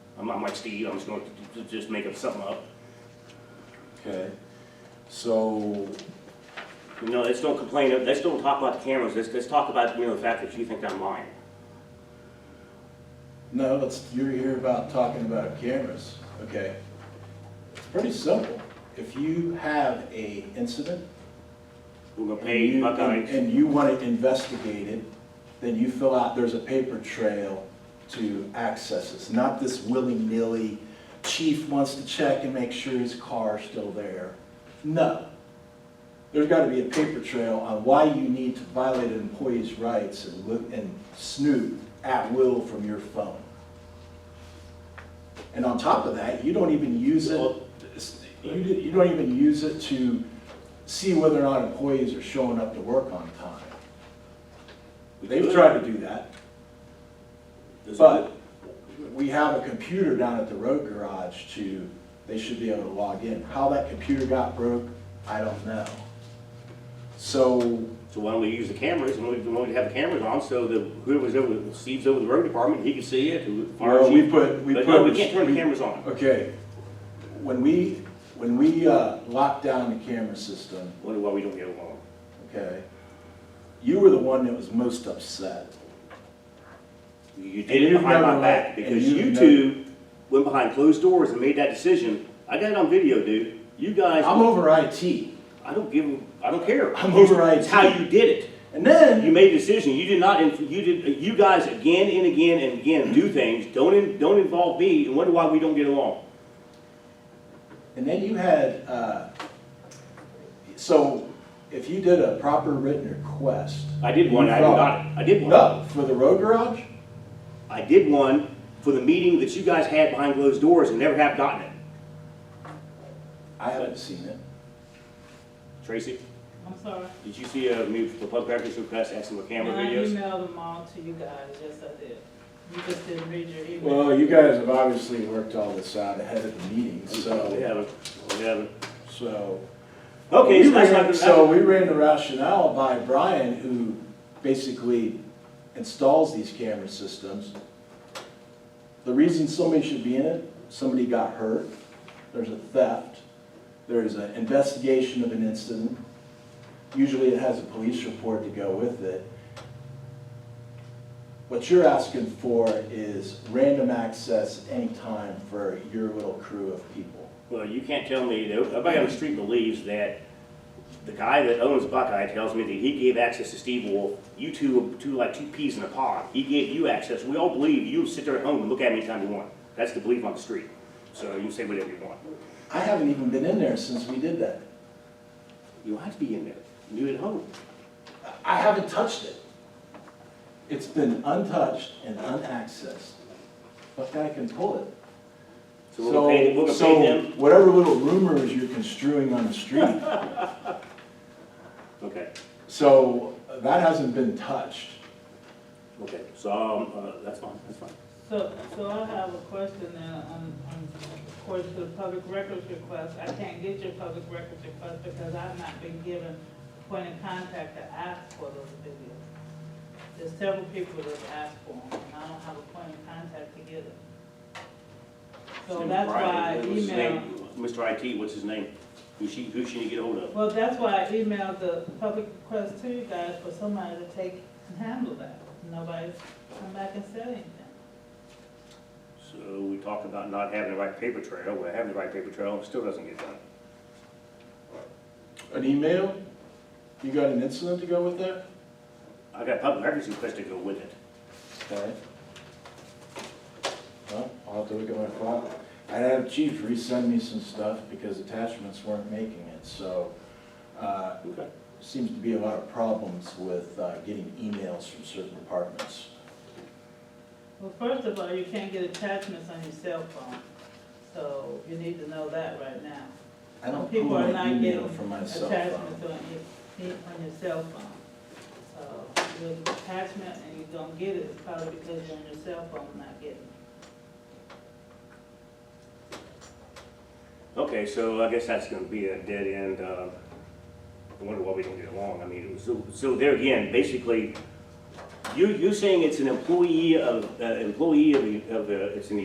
I'm not like Steve, I'm just going to just make up something up. Okay, so, You know, let's don't complain, let's don't talk about the cameras, let's, let's talk about, you know, the fact that you think I'm lying. no, let's, you're here about talking about cameras, okay? It's pretty simple. If you have a incident. We're gonna and pay you- Buckeyes. And you want it investigated, then you fill out, there's a paper trail to access this, not this willy-nilly, chief wants to check and make sure his car's still there. No. There's gotta be a paper trail on why you need to violate an employee's rights and look, and snoop at will from your phone. And on top of that, you don't even use it, you, d- you don't even use it to see whether or not employees are showing up to work on time. They've tried to do that. But we have a computer down at the road garage to, they should be able to log in. How that computer got broke, I don't know. So, So why don't we use the cameras, and we, we have the cameras on, so that whoever's over, Steve's over the road department, he can see it, who, fire well, we chief. put, we put. But no, we can't turn the cameras on. Okay, when we, when we uh, locked down the camera system, Wonder why we don't get along. okay, you were the one that was most upset. You And did it you've behind my never back, let- because and you you've two went behind closed doors and made that decision. I got it on video, dude. You guys, I'm over IT. I don't give, a- I don't care. I'm over It's how IT. you did it. And then, You made a decision, you did not, inf- you did, you guys again and again and again do things, don't, in- don't involve me, and wonder why we don't get along. And then you had, uh, so if you did a proper written request. I did one, I you haven't felt- got it, I did one. No, for the road garage? I did one for the meeting that you guys had behind closed doors and never have gotten it. I haven't seen it. Tracy, I'm sorry. did you see a move for public records request asking for camera videos? I emailed them all to you guys, yes, I did. You just didn't read your email. Well, you guys have obviously worked all this out ahead of the meeting, We so, haven't, we haven't. so. Okay, We so that's ran- not, So so, we ran the rationale by Brian, who basically installs these camera systems. The reason somebody should be in it, somebody got hurt, there's a theft, there's an investigation of an incident. Usually it has a police report to go with it. What you're asking for is random access anytime for your little crew of people. well, you can't tell me, that everybody on the street believes that the guy that owns Buckeye tells me that he gave access to Steve Wolf, you two, two, like two peas in a pod, he gave you access, we all believe you sit there at home and look at me anytime you want. That's the belief on the street, so you can say whatever you want. I haven't even been in there since we did that. You don't have to be in there, you at home. I haven't touched it. It's been untouched and unaccessed. What guy can pull it? So we're gonna pay, we're gonna pay them, So whatever little rumors you're construing on the street, okay, so uh, that hasn't been touched. okay, so, um, uh, that's fine, that's fine. So, so I have a question then, on, on, of course, the public records request, I can't get your public records request because I've not been given a point of contact to ask for those videos. There's several people that have asked for them, and I don't have a point of contact to get them. So that's why I Brian, what's his emailed. name? Mr. IT, what's his name? Who she, who she need to get hold of? Well, that's why I emailed the public request to you guys for somebody to take and handle that. Nobody's come back and said anything. So we talked about not having the right paper trail, we're having the right paper trail, and it still doesn't get done. An email? You got an incident to go with that? I got public records request to go with it. Okay. Well, I'll have to look at my file. I had Chief resend me some stuff because attachments weren't making it, so, uh, Okay. seems to be a lot of problems with uh, getting emails from certain departments. Well, first of all, you can't get attachments on your cell phone, so you need to know that right now. I don't pull People are my not email getting from my cell Attachments phone. on your, on your cell phone. So your attachment and you don't get it, it's probably because you're on your cell phone not getting it. Okay, so I guess that's gonna be a dead end, uh, I wonder why we don't get along, I mean, it was- so, so there again, basically, you, you saying it's an employee of, uh, employee of, the- of, the- it's an